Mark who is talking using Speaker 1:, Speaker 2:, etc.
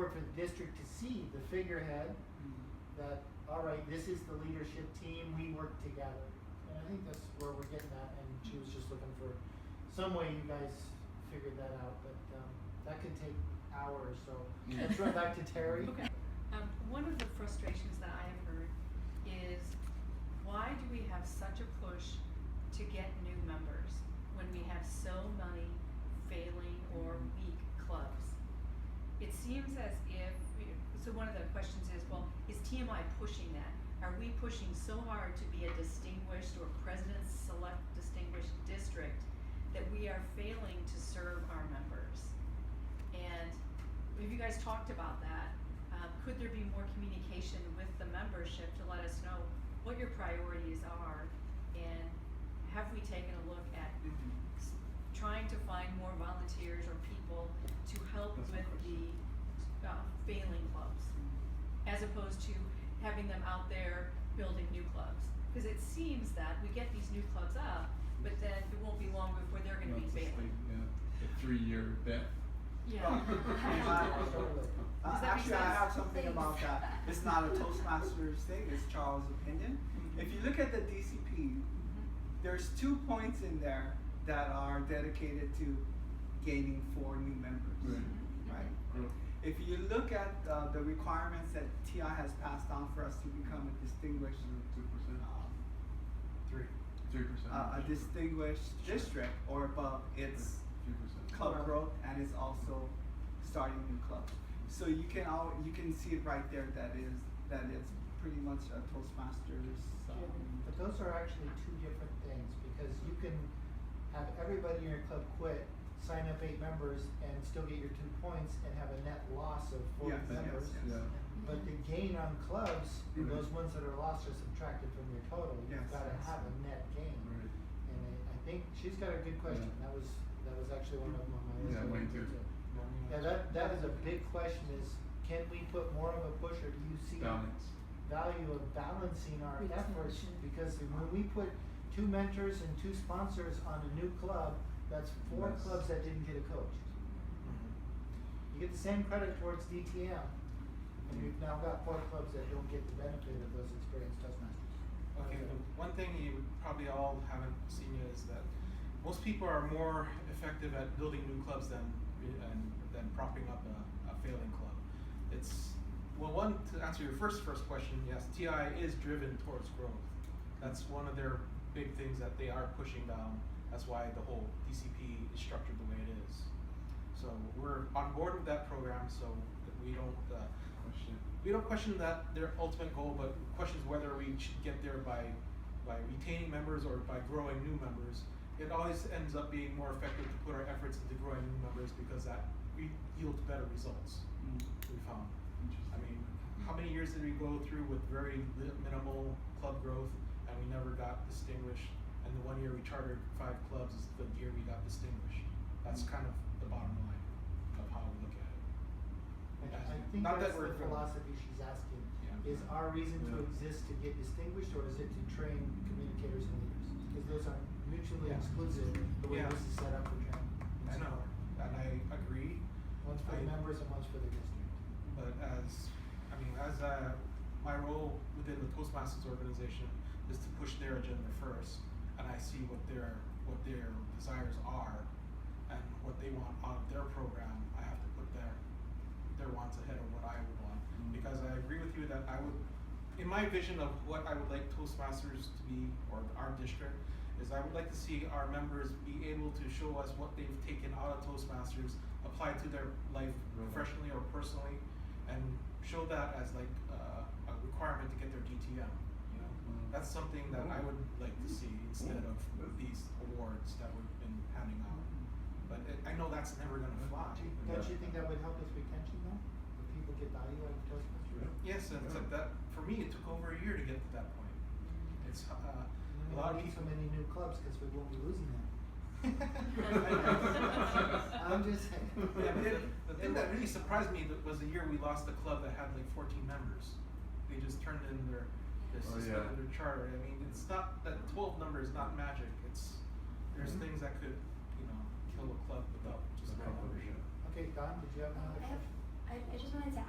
Speaker 1: important for the district to see the figurehead that, all right, this is the leadership team, we work together. And I think that's where we're getting at, and she was just looking for some way you guys figured that out, but, um, that could take hours, so let's run back to Terry.
Speaker 2: Okay. Um, one of the frustrations that I have heard is why do we have such a push to get new members when we have so many failing or weak clubs? It seems as if, so one of the questions is, well, is TMI pushing that? Are we pushing so hard to be a distinguished or president select distinguished district that we are failing to serve our members? And have you guys talked about that? Uh, could there be more communication with the membership to let us know what your priorities are? And have we taken a look at s- trying to find more volunteers or people to help
Speaker 3: That's my
Speaker 2: with the
Speaker 3: question.
Speaker 2: uh, failing clubs? as opposed to having them out there building new clubs. Because it seems that we get these new clubs up, but then it won't be long before they're going to
Speaker 3: Not
Speaker 2: be
Speaker 3: to say,
Speaker 2: failing.
Speaker 3: yeah, a three-year bet.
Speaker 2: Yeah. Mm-hmm.
Speaker 4: Uh,
Speaker 2: Does that make
Speaker 4: actually, I
Speaker 2: sense?
Speaker 4: have something about that. It's not a Toastmasters thing, it's Charles' opinion.
Speaker 2: Mm-hmm.
Speaker 4: If you look at the DCP, there's two points in there that are dedicated to gaining four new members. Right?
Speaker 3: Growth.
Speaker 4: If you look at uh, the requirements that TI has passed on for us to become a distinguished,
Speaker 2: Mm-hmm.
Speaker 3: Two percent,
Speaker 4: um,
Speaker 1: Three.
Speaker 3: three percent.
Speaker 4: uh, a distinguished district or above, it's
Speaker 3: Three percent.
Speaker 4: club growth and it's also starting new clubs. So you can all you can see it right there that is that is pretty much a Toastmasters. Um,
Speaker 1: But those are actually two different things, because you can have everybody in your club quit, sign up eight members, and still get your two points, and have a net loss of forty
Speaker 4: Yes, yes,
Speaker 1: members.
Speaker 4: yes.
Speaker 3: Yeah.
Speaker 1: But the gain on clubs,
Speaker 4: Mhm.
Speaker 3: Mm-hmm.
Speaker 1: those ones that are lost are subtracted from your total, you've
Speaker 4: Yes,
Speaker 1: gotta
Speaker 4: yes.
Speaker 1: have a net gain.
Speaker 3: Right.
Speaker 1: And I, I think, she's got a good question,
Speaker 3: Yeah.
Speaker 1: that was, that was actually one of them on my list.
Speaker 3: Yeah, mine too.
Speaker 1: Yeah, that, that is a big question, is can we put more of a push, or do you see
Speaker 3: Balance.
Speaker 1: value of balancing our efforts
Speaker 5: Retention.
Speaker 1: because when we put two mentors and two sponsors on a new club, that's four
Speaker 3: Yes.
Speaker 1: clubs that didn't get a coach. You get the same credit towards DTM, and we've now got four clubs that don't get the benefit of those experienced Toastmasters.
Speaker 6: Okay, the one thing you probably all haven't seen yet is that most people are more effective at building new clubs than and, than propping up a, a failing club. It's well, one to answer your first first question, yes, TI is driven towards growth. That's one of their big things that they are pushing down. That's why the whole DCP is structured the way it is. So we're on board with that program, so that we don't. Uh,
Speaker 3: Question.
Speaker 6: we don't question that their ultimate goal, but questions whether we should get there by by retaining members or by growing new members. It always ends up being more effective to put our efforts into growing new members because that re- yields better results.
Speaker 3: Hmm,
Speaker 4: mm.
Speaker 6: We found.
Speaker 3: Interesting.
Speaker 6: I mean, how many years did we go through with very li- minimal club growth, and we never got distinguished? And the one year we chartered five clubs is the year we got distinguished. That's kind of the bottom line of how we look at it.
Speaker 1: And
Speaker 6: Yes.
Speaker 1: I think
Speaker 6: Not that
Speaker 1: that's
Speaker 6: we're
Speaker 1: the
Speaker 6: driven.
Speaker 1: philosophy she's asking,
Speaker 6: Yeah.
Speaker 1: is our reason to
Speaker 3: Yeah.
Speaker 1: exist to get distinguished, or is it to train communicators and leaders? Because those are mutually
Speaker 6: Yeah.
Speaker 1: exclusive, the way
Speaker 6: Yeah.
Speaker 1: this is set up for training.
Speaker 6: I know, and I agree.
Speaker 1: One's for the
Speaker 6: I-
Speaker 1: members and one's for the district.
Speaker 6: But as, I mean, as uh, my role within the Toastmasters organization is to push their agenda first, and I see what their what their desires are, and what they want out of their program. I have to put their their wants ahead of what I would want,
Speaker 3: Mm.
Speaker 6: because I agree with you that I would, in my vision of what I would like Toastmasters to be or our district. Is I would like to see our members be able to show us what they've taken out of Toastmasters, applied to their
Speaker 3: Right.
Speaker 6: life
Speaker 1: Mm-hmm.
Speaker 6: professionally or personally, and show that as like uh, a requirement to get their DTM. You know,
Speaker 1: Mm-hmm.
Speaker 3: Mm.
Speaker 6: that's something that I would like to see instead of
Speaker 3: Mm.
Speaker 6: these awards that we've been handing out.
Speaker 4: um,
Speaker 6: But it, I know that's never gonna fly.
Speaker 1: Mm-hmm. Do you,
Speaker 3: Yeah.
Speaker 1: don't you think that would help with retention though? If people get value out of Toastmasters?
Speaker 3: Yeah.
Speaker 6: Yes, and it's like that for me. It took over a year to get to that point. It's uh,
Speaker 1: And We
Speaker 6: a lot
Speaker 1: don't
Speaker 6: of
Speaker 1: need so
Speaker 6: people.
Speaker 1: many new clubs because we won't be losing them.
Speaker 3: I'm
Speaker 1: just saying.
Speaker 6: Yeah, but then, the thing that really surprised me that was the year we lost the club that had like 14 members. They just turned in their, their
Speaker 3: Oh,
Speaker 6: suspended
Speaker 3: yeah.
Speaker 6: their charter. I mean, it's not that 12 number is not magic. It's there's
Speaker 3: Mhm.
Speaker 6: things that could, you know, kill a club without just
Speaker 3: Just
Speaker 6: one
Speaker 3: cover
Speaker 6: membership.
Speaker 3: it.
Speaker 1: Okay, Don, did you have another
Speaker 5: I have,
Speaker 1: question?
Speaker 5: I I, I just wanted to